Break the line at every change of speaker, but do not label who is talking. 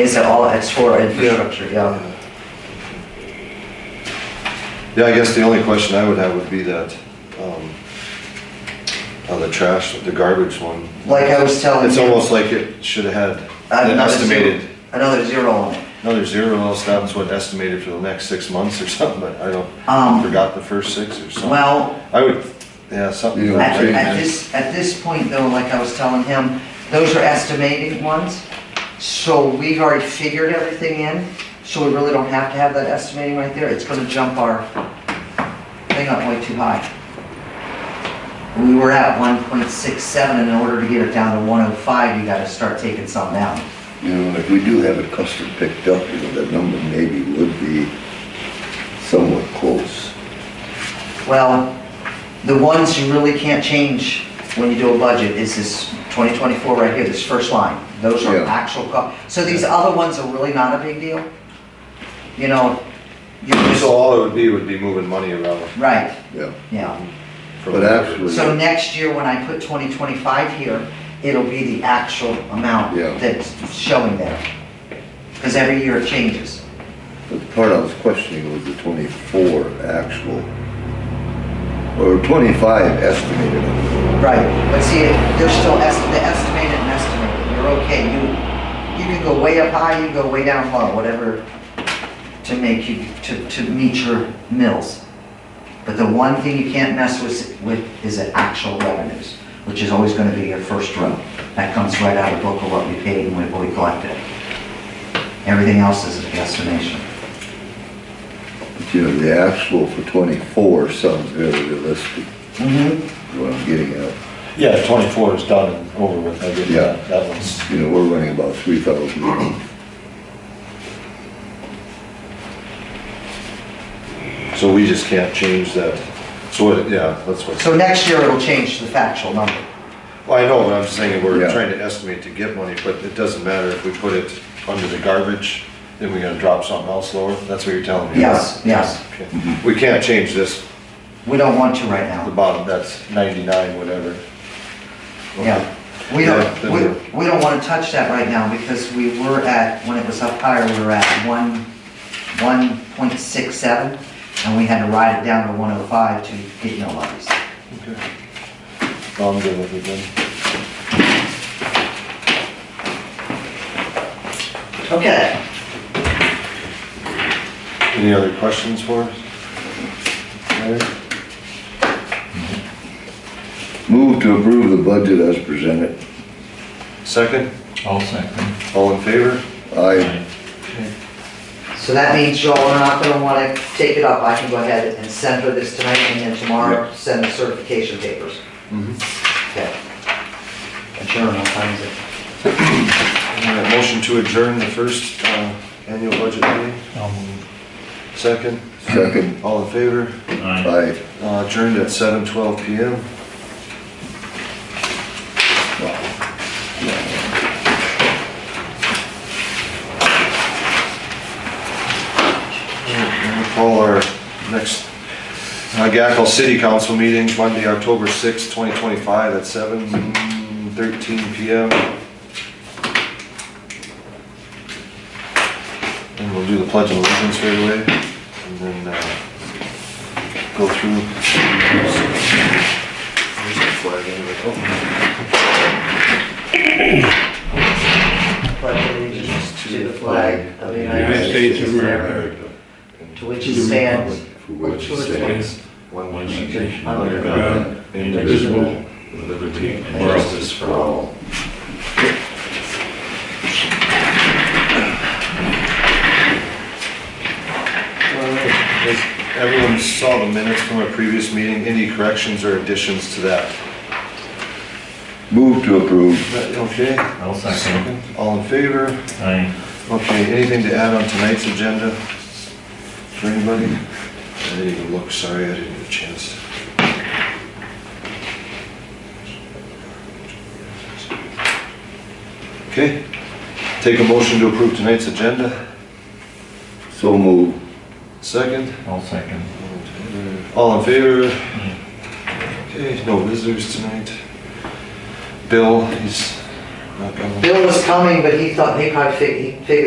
Is it all, it's for infrastructure, yeah.
Yeah, I guess the only question I would have would be that, um, on the trash, the garbage one.
Like I was telling
It's
you-
almost like it should have had an
Uh, Another zero-
estimated,
Another zero on it.
another zero, else that was what estimated for the next six months or something, but I don't,
Um,
forgot the first six or something.
Well,
I would, yeah, something.
Yeah.
like
At,
that.
at this, at this point though, like I was telling him, those are estimated ones. So we've already figured everything in, so we really don't have to have that estimating right there. It's gonna jump our thing up way too high. We were at one point six seven, in order to get it down to one oh five, you gotta start taking something out.
You know, if we do have it custom picked up, you know, that number maybe would be somewhat close.
Well, the ones you really can't change when you do a budget is this 2024 right here, this first line. Those are
Yeah.
actual costs. So these other ones are really not a big deal? You know, you
So
just,
all it would be, would be moving money around
right,
Yeah.
yeah.
from.
But actually-
So next year, when I put 2025 here, it'll be the actual amount
Yeah.
that's showing there. Because every year it changes.
But the part I was questioning was the twenty-four actual, or twenty-five estimated.
Right, but see, they're still esti- the estimated and estimated, you're okay, you, you can go way up high, you can go way down low, whatever, to make you, to, to meet your mills. But the one thing you can't mess with, with is the actual revenues, which is always gonna be your first row. That comes right out of book of what we paid and what we collected. Everything else is an estimation.
But you know, the actual for twenty-four sounds very realistic,
Mm-hmm.
is what I'm getting at.
Yeah, twenty-four is done and over with, I get that, that one's.
You know, we're running about three thousand a month.
So we just can't change that, so what, yeah, that's what.
So next year it'll change to the factual number.
Well, I know, but I'm just saying, we're
Yeah.
trying to estimate to get money, but it doesn't matter if we put it under the garbage, then we're gonna drop something else lower, that's what you're telling me?
Yes, yes.
Okay. We can't change this,
We don't want to right now.
the bottom, that's ninety-nine, whatever.
Yeah, we
Yeah,
don't,
then
we,
we're-
we don't wanna touch that right now, because we were at, when it was up higher, we were at one, one point six seven, and we had to ride it down to one oh five to get no levies.
Okay. No, I'm good with it then.
Okay,
Any other questions for us? Larry?
Move to approve the budget as presented.
Second,
I'll second.
all in favor?
I,
so that means y'all are not gonna wanna take it up, I can go ahead and send her this tonight, and then tomorrow, send the certification papers. Okay. Adjourn, I'll find it.
All right, Motion to adjourn the first, uh, annual budget meeting,
I'll move.
second,
second,
all in favor?
Aye.
I,
Uh, Adjourned at seven twelve PM. We'll Call our next uh, Gackel City Council meeting, Monday, October sixth, twenty twenty-five, at seven thirteen PM. And we'll do the pledge of allegiance right away, and then, uh, go through. There's a flag anyway. Oh,
pledge allegiance to the flag of the United States of America, to which it stands,
for which it stands,
One
One
nation,
nation
under
under God, indivisible, with liberty and justice for all.
Does Everyone saw the minutes from our previous meeting, any corrections or additions to that?
move to approve.
Okay,
I'll second.
all in favor?
Aye.
Okay, anything to add on tonight's agenda for anybody? I didn't even look, sorry, I didn't get a chance. Okay, take a motion to approve tonight's agenda,
So move.
second.
I'll second.
All in favor? Okay, no visitors tonight. Bill, he's not coming.
Bill was coming, but he thought, he probably fig- he figured